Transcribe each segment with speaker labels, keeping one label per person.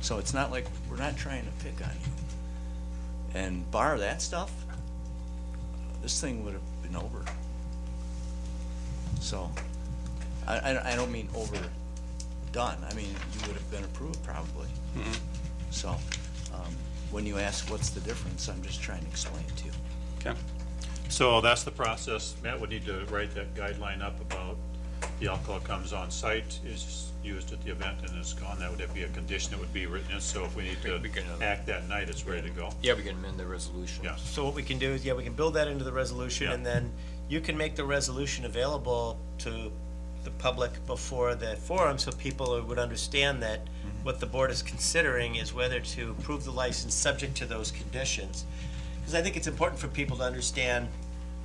Speaker 1: so it's not like, we're not trying to pick on you. And bar that stuff, this thing would have been over. So, I, I, I don't mean overdone, I mean, you would have been approved probably. So, um, when you ask what's the difference, I'm just trying to explain it to you.
Speaker 2: Okay. So that's the process. Matt would need to write that guideline up about the alcohol comes on site, is used at the event and is gone. That would be a condition that would be written in, so if we need to
Speaker 3: We can, uh,
Speaker 2: act that night, it's ready to go.
Speaker 3: Yeah, we can amend the resolution.
Speaker 2: Yes.
Speaker 4: So what we can do is, yeah, we can build that into the resolution,
Speaker 2: Yeah.
Speaker 4: and then you can make the resolution available to the public before the forum, so people would understand that
Speaker 2: Mm-hmm.
Speaker 4: what the board is considering is whether to approve the license subject to those conditions. Because I think it's important for people to understand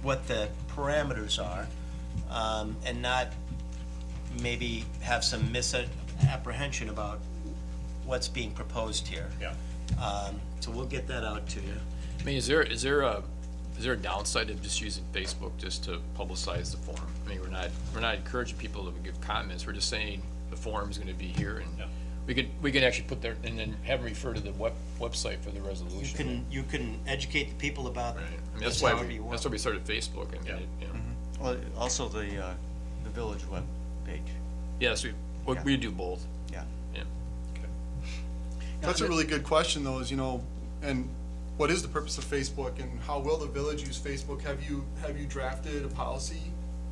Speaker 4: what the parameters are, um, and not maybe have some misapprehension about what's being proposed here.
Speaker 2: Yeah.
Speaker 4: Um, So we'll get that out to you.
Speaker 3: I mean, is there, is there a, is there a downside of just using Facebook just to publicize the forum? I mean, we're not, we're not encouraging people to give comments, we're just saying the forum's gonna be here
Speaker 2: Yeah.
Speaker 3: and we could, we could actually put their, and then have them refer to the web, website for the resolution.
Speaker 4: you can, you can educate the people about
Speaker 3: Right, I mean,
Speaker 4: this
Speaker 3: that's why
Speaker 4: however
Speaker 3: we,
Speaker 4: you
Speaker 3: that's
Speaker 4: want. Mm-hmm.
Speaker 3: why we started Facebook, I mean,
Speaker 2: Yeah.
Speaker 3: it- you know.
Speaker 1: Well, also the, uh, the village webpage,
Speaker 3: Yeah, so we,
Speaker 1: Yeah.
Speaker 3: we do both,
Speaker 1: yeah.
Speaker 3: yeah.
Speaker 5: That's a really good question, though, is, you know, and what is the purpose of Facebook and how will the village use Facebook? Have you, have you drafted a policy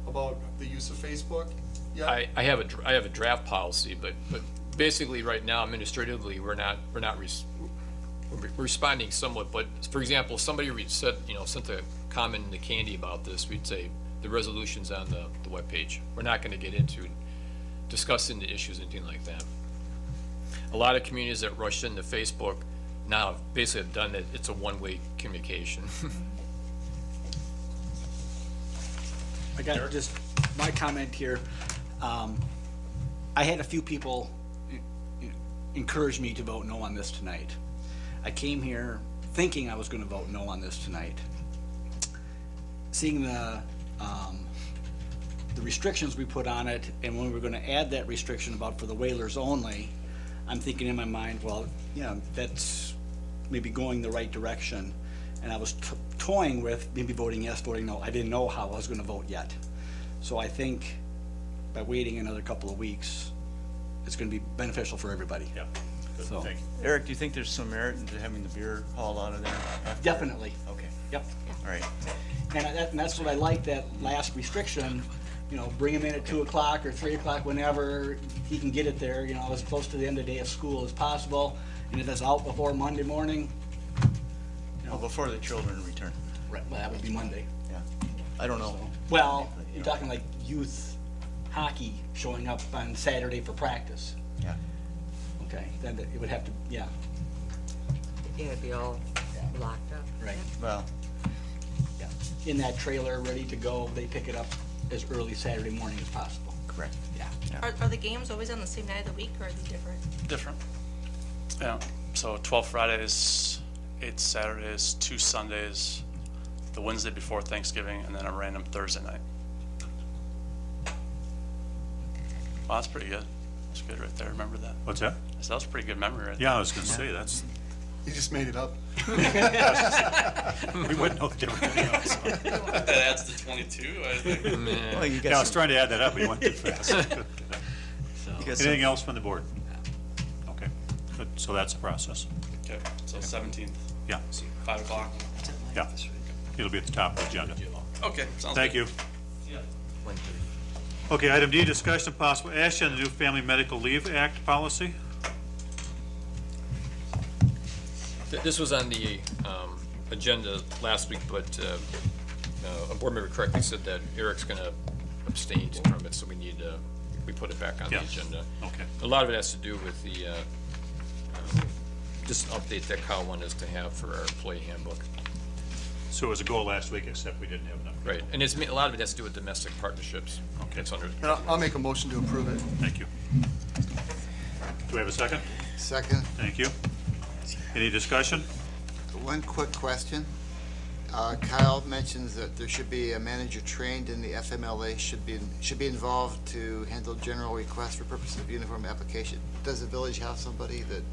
Speaker 5: about the use of Facebook? Yeah.
Speaker 3: I, I have a, dr- I have a draft policy, but, but basically, right now administratively, we're not, we're not, res- we're re- responding somewhat, but, for example, if somebody re- said, you know, sent a comment to Candy about this, we'd say, the resolution's on the, the webpage. We're not gonna get into discussing the issues, anything like that. A lot of communities that rush into Facebook now basically have done it, it's a one-way communication.
Speaker 6: I got just my comment here. Um, I had a few people en- en- encourage me to vote no on this tonight. I came here thinking I was gonna vote no on this tonight. Seeing the, um, the restrictions we put on it and when we're gonna add that restriction about for the whalers only, I'm thinking in my mind, well, yeah, that's maybe going the right direction. And I was to- toying with maybe voting yes, voting no. I didn't know how I was gonna vote yet. So I think by waiting another couple of weeks, it's gonna be beneficial for everybody.
Speaker 2: Yeah. Good,
Speaker 6: So-
Speaker 2: thank you.
Speaker 1: Eric, do you think there's some merit into having the beer hauled out of there? after?
Speaker 6: Definitely.
Speaker 1: Okay,
Speaker 6: Yep.
Speaker 1: all right.
Speaker 6: And I- that, and that's what I like, that last restriction, you know, bring him in at two o'clock or three o'clock, whenever he can get it there, you know, as close to the end of the day of school as possible. And if it's out before Monday morning,
Speaker 1: Well, before the children return,
Speaker 6: right, well, that would be Monday.
Speaker 1: yeah. I don't know.
Speaker 6: Well, you're talking like youth hockey showing up on Saturday for practice.
Speaker 1: Yeah.
Speaker 6: Okay, then it would have to, yeah,
Speaker 7: Yeah, it'd be all locked up.
Speaker 6: right,
Speaker 1: Well,
Speaker 6: yeah. In that trailer, ready to go, they pick it up as early Saturday morning as possible.
Speaker 1: correct.
Speaker 6: Yeah.
Speaker 8: Are, are the games always on the same night of the week or are they different?
Speaker 9: different. Yeah. So 12 Fridays, 8 Saturdays, 2 Sundays, the Wednesday before Thanksgiving, and then a random Thursday night. Well, that's pretty good. That's good right there. Remember that?
Speaker 2: What's that?
Speaker 9: So that was a pretty good memory right
Speaker 2: Yeah, I was gonna say, that's,
Speaker 5: You just made it up.
Speaker 2: we wouldn't know the difference.
Speaker 10: That adds to 22, I think.
Speaker 1: Well, you
Speaker 2: Yeah, I
Speaker 1: got
Speaker 2: was
Speaker 1: some,
Speaker 2: trying to add that up, we went too fast.
Speaker 1: you got
Speaker 2: Anything
Speaker 1: some,
Speaker 2: else from the board? Okay, good, so that's the process.
Speaker 10: Okay, so 17th,
Speaker 2: Yeah,
Speaker 10: 5 o'clock.
Speaker 2: yeah. It'll be at the top of the agenda.
Speaker 10: Okay, sounds
Speaker 2: Thank
Speaker 10: good.
Speaker 2: you. Okay, item D, discussion of possible action on the new Family Medical Leave Act policy.
Speaker 3: Th- This was on the um, agenda last week, but uh, uh, a board member correctly said that Eric's going to abstain from it, so we need, uh, we put it back on the
Speaker 2: Yeah.
Speaker 3: agenda.
Speaker 2: Okay.
Speaker 3: A lot of it has to do with the, uh, um, just an update that Kyle wanted us to have for our employee handbook.
Speaker 2: So it was a goal last week, except we didn't have enough.
Speaker 3: Right, and it's, a lot of it has to do with domestic partnerships.
Speaker 2: Okay.
Speaker 3: It's under,
Speaker 5: And I'll, I'll make a motion to approve it.
Speaker 2: Thank you. Do we have a second?
Speaker 11: Second,
Speaker 2: Thank you. Any discussion?
Speaker 11: one quick question. Uh, Kyle mentions that there should be a manager trained in the FMLA, should be, should be involved to handle general requests for purposes of uniform application. Does the village have somebody that